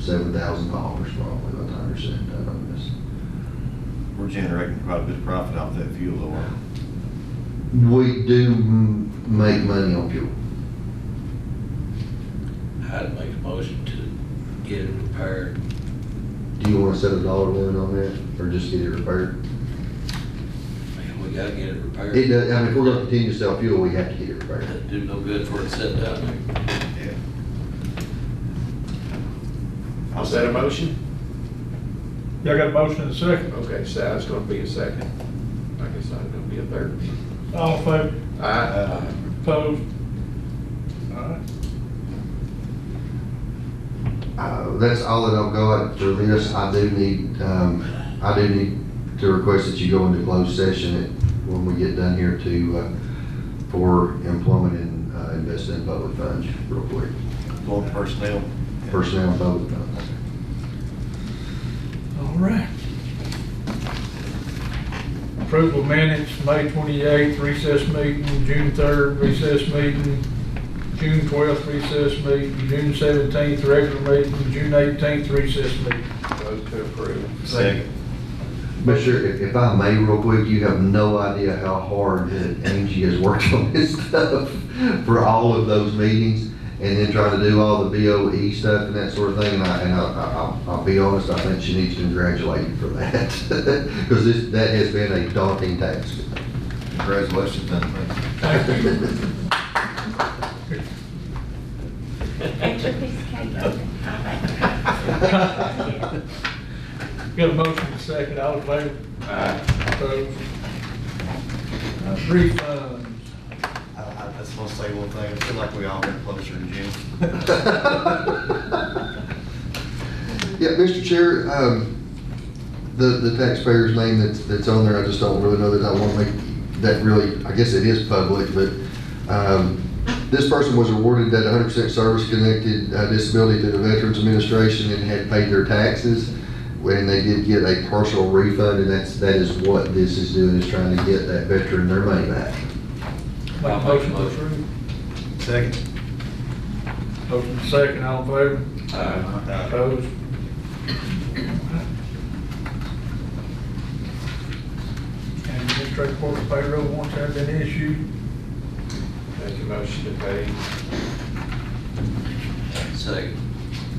seven thousand dollars probably by the time you're said and done, I guess. We're generating quite a bit of profit off that fuel though. We do m- make money on fuel. I'd make a motion to get it repaired. Do you wanna set a dollar limit on that, or just get it repaired? Man, we gotta get it repaired. It does, I mean, if we're gonna continue to sell fuel, we have to get it repaired. It'd Do no good for it to sit down there. Yeah. Was that a motion? Y'all got a motion and a second. Okay, so that's gonna be a second. I guess I'm gonna be a third. All in favor, Aye. opposed? All right. Uh, that's all that I've got for this. I do need, um, I do need to request that you go into closed session at- when we get done here to, uh, for employment and, uh, investing in public funds, real quick. Going personnel. Personnel and public funds. All right. Approval minutes, May twenty-eighth recess meeting, June third recess meeting, June twelfth recess meeting, June seventeenth regular meeting, June eighteenth recess meeting. Vote to approve. Second. But sure, if, if I may real quick, you have no idea how hard that Angie has worked on this stuff for all of those meetings and then trying to do all the BOE stuff and that sort of thing. And I, and I, I- I'll, I'll be honest, I think she needs to congratulate you for that. Cause this, that has been a daunting task. Congratulations, then. Thank you. Extra piece of cake. Got a motion and a second, all in favor? Aye. Opposed? Uh, Refunds. I, I just want to say one thing, I feel like we all got closer in June. Yeah, Mr. Chair, um, the, the taxpayer's name that's, that's on there, I just don't really know that I want to make, that really, I guess it is public, but, um, this person was awarded that hundred percent service-connected uh, disability to the Veterans Administration and had paid their taxes. When they did get a partial refund, and that's, that is what this is doing, is trying to get that veteran their money back. Make a I'll make a motion to motion. approve. Second. Motion and a second, all in favor? Uh, Opposed? And administrative court payroll warrants have been issued. Make a motion to pay. Second.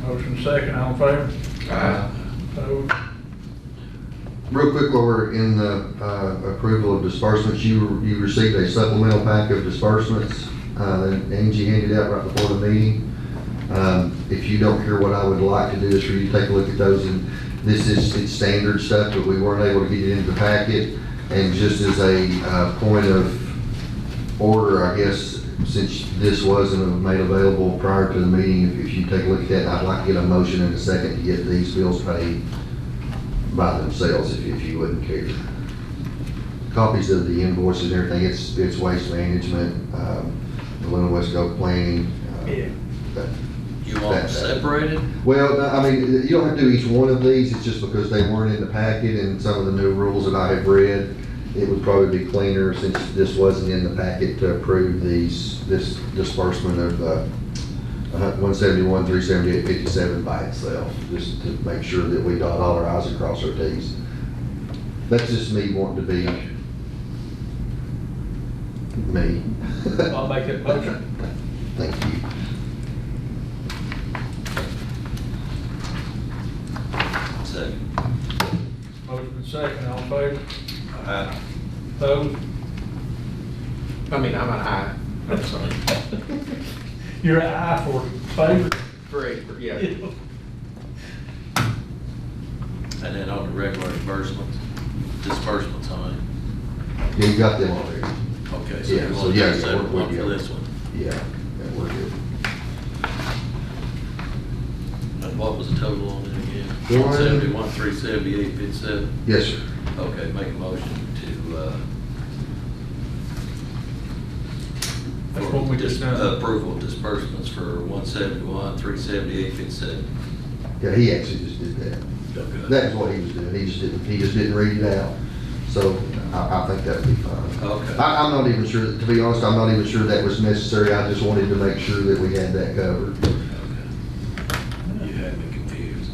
Motion second, all in favor? Aye. Opposed? Real quick, while we're in the uh, approval of disbursements, you, you received a supplemental pack of disbursements uh, that Angie handed out right before the meeting. Um, If you don't hear what I would like to do is for you to take a look at those, and this is, it's standard stuff, but we weren't able to get it into the packet. And just as a uh, point of order, I guess, since this wasn't made available prior to the meeting, if- if you take a look at that, I'd like to get a motion in a second to get these bills paid by themselves if, if you wouldn't care. Copies of the invoices and everything, it's, it's waste management, um, the Luna West Gulf planning. uh, that- You want them separated? Well, no, I mean, you don't have to do each one of these, it's just because they weren't in the packet and some of the new rules that I have read, it would probably be cleaner since this wasn't in the packet to approve these, this disbursement of, uh, one seventy-one, three seventy-eight, fifty-seven by itself, just to make sure that we dot all our i's and cross our t's. That's just me wanting to be me. I'll make that motion. Thank you. Second. Motion second, all in favor? Aye. Opposed? I mean, I'm an aye. I'm sorry. You're an aye for favor? Three, yeah. And then on the regular disbursements, disbursements on Yeah, you got them already. it. Okay, so Yeah, you so want yeah, to yeah, separate we're- one for we're- this one. Yeah, that we're good. And what was the total on it again? One- One seventy-one, three seventy-eight, fifty-seven? Yes, sir. Okay, make a motion to, uh. That's what we just done. Approval of disbursements for one seventy-one, three seventy-eight, fifty-seven. Yeah, he actually just did that. That's what he was doing. He just didn't, he just didn't read it out. So I, I think that'd be fine. Okay. I, I'm not even sure, to be honest, I'm not even sure that was necessary. I just wanted to make sure that we had that covered.